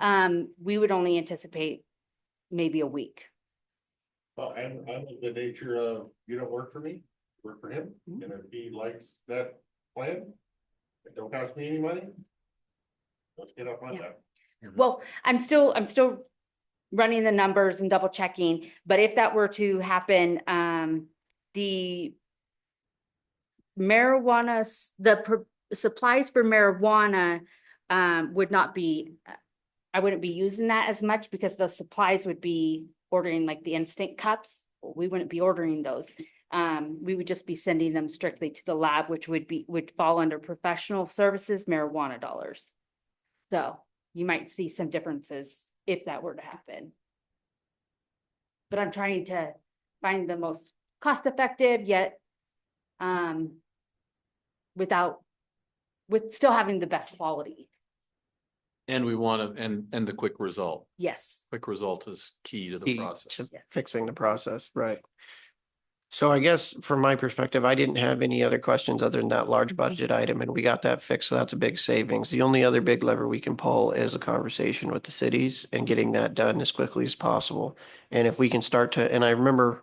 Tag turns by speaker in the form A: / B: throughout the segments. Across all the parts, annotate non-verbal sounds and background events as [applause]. A: Um, we would only anticipate maybe a week.
B: Well, I'm, I'm of the nature of, you don't work for me, work for him, and if he likes that plan, it don't cost me any money. Let's get up on
A: Yeah.
B: that.
A: Well, I'm still, I'm still running the numbers and double checking, but if that were to happen, um, the marijuana, s- the pro- supplies for marijuana, um, would not be, uh, I wouldn't be using that as much because the supplies would be ordering like the instant cups. We wouldn't be ordering those. Um, we would just be sending them strictly to the lab, which would be, would fall under professional services marijuana dollars. So you might see some differences if that were to happen. But I'm trying to find the most cost effective yet um without with still having the best quality.
C: And we want to, and, and the quick result,
A: Yes.
C: quick result is key to the
D: key
C: process.
D: to
A: Yes.
D: fixing the process, right? So I guess from my perspective, I didn't have any other questions other than that large budget item and we got that fixed. So that's a big savings. The only other big lever we can pull is a conversation with the cities and getting that done as quickly as possible. And if we can start to, and I remember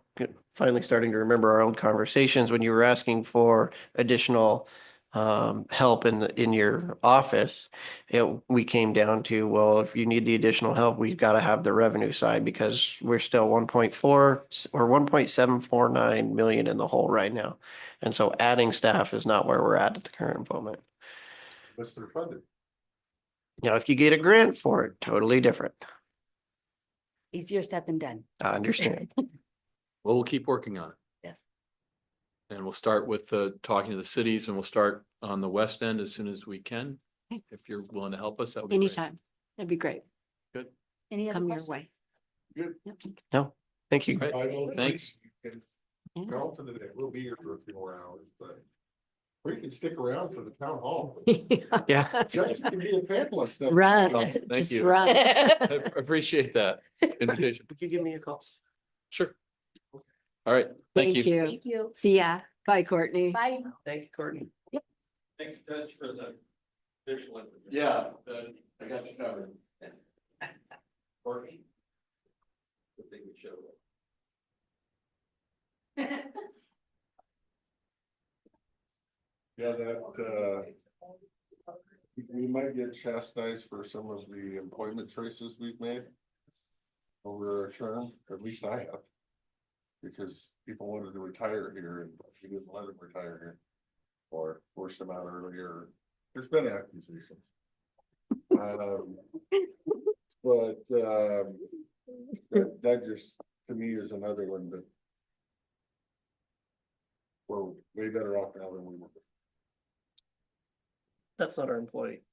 D: finally starting to remember our old conversations when you were asking for additional um, help in, the- in your office it, we came down to, well, if you need the additional help, we've got to have the revenue side because we're still one point four or one point seven four nine million in the hole right now. And so adding staff is not where we're at at the current moment.
B: Mr. Funded,
D: Now, if you get a grant for it, totally different.
A: Easier said than done.
D: I understand.
C: Well, we'll keep working on it.
A: Yes.
C: And we'll start with the, talking to the cities and we'll start on the west end as soon as we can.
E: Okay.
C: If you're willing to help us, that would be great.
E: Anytime. That'd be great.
A: Any other
E: Come your
A: questions?
E: way.
B: Good.
E: Yep.
D: Thank you.
C: Right.
B: I will.
C: Thanks.
B: you can
E: Yeah.
B: Go for the day, we'll be here for a few more hours, but we can stick around for the town hall.
E: [laughs]
D: Yeah.
B: Judge can be a fabulous stuff.
C: Oh,
E: Run,
C: thank
E: just
C: you.
E: run.
C: I I appreciate that.
D: [laughs]
C: invitation.
D: Could you give me a call?
C: Sure. All right, thank
E: Thank
C: you.
E: you.
A: Thank you.
E: See ya. Bye, Courtney.
A: Bye. [laughs]
D: Thank you, Courtney.
C: Thanks, Judge, for the visual. Yeah, the- I got you covered. Courtney? The thing we showed.
B: Yeah, that, uh, we might get chastised for some of the employment choices we've made over our term, at least I have. Because people wanted to retire here and we didn't let them retire here. Or forced them out earlier. There's been accusations. Um, But, um, that, that just, to me, is another one that we're way better off now than we were.
D: That's not our employee.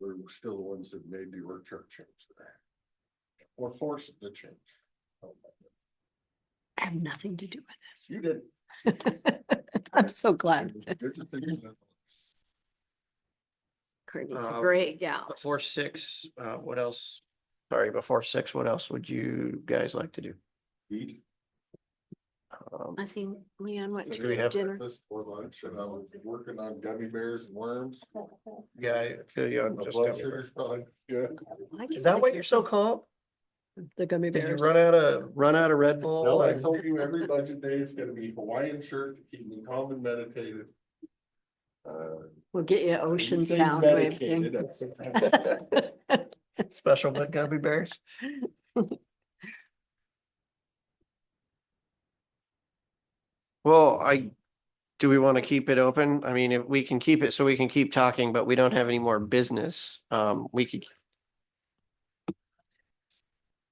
B: we're still the ones that made the org chart change there. Or forced the change. Oh
E: I have nothing to do with
B: You did.
E: this. [laughs] I'm so glad. Courtney's a
D: Uh,
E: great gal.
D: Before six, uh, what else? Sorry, before six, what else would you guys like to do?
B: Eat
D: Um,
E: I think Leon went
D: Do we
E: to
D: have
E: dinner.
B: breakfast for lunch and I was working on gummy bears and worms.
D: Yeah, I feel you. on
B: My
D: just
B: blood
D: gummy bears.
B: sugar's probably good.
E: I
D: Is
E: just
D: that
E: like
D: why
E: your
D: you're so calm?
E: The gummy
D: Did you
E: bears.
D: run out of, run out of Red
B: No,
D: Bull?
B: I
D: and-
B: told you every budget day it's gonna be Hawaiian shirt to keep me calm and meditated. Uh,
E: We'll get you ocean
B: things
E: sound. wave thing.
B: medicated, that's-
D: [laughs] Special but gummy bears? Well, I, do we want to keep it open? I mean, if we can keep it so we can keep talking, but we don't have any more business, um, we could.
E: [laughs]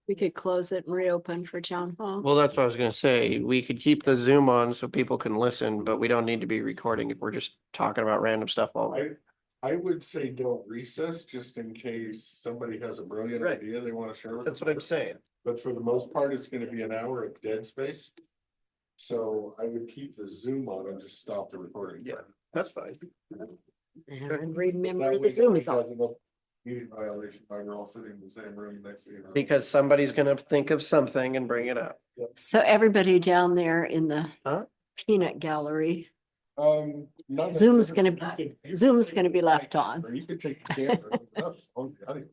E: We could close it and reopen for town hall.
D: Well, that's what I was gonna say. We could keep the Zoom on so people can listen, but we don't need to be recording if we're just talking about random stuff all
B: I,
D: day.
B: I would say don't recess just in case somebody has a brilliant
D: Right.
B: idea they wanna share with.
D: That's
B: us.
D: what I'm saying.
B: But for the most part, it's gonna be an hour of dead space. So I would keep the Zoom on and just stop the recording.
D: Yeah. That's fine.
E: And remember
B: That
E: the
B: way
E: Zoom
B: nobody
E: is on.
B: has enough Meeting violation, by we're all sitting in the same room next to you.
D: Because somebody's gonna think of something and bring it up.
E: So everybody down there in the
D: Huh?
E: peanut gallery,
B: Um. not
E: Zoom's
B: necessarily-
E: gonna be-
B: you can- you
E: Zoom's
B: can
E: gonna be
B: take-
E: left on. [laughs]
B: Or you could take the camera. Oh, and us on the audio.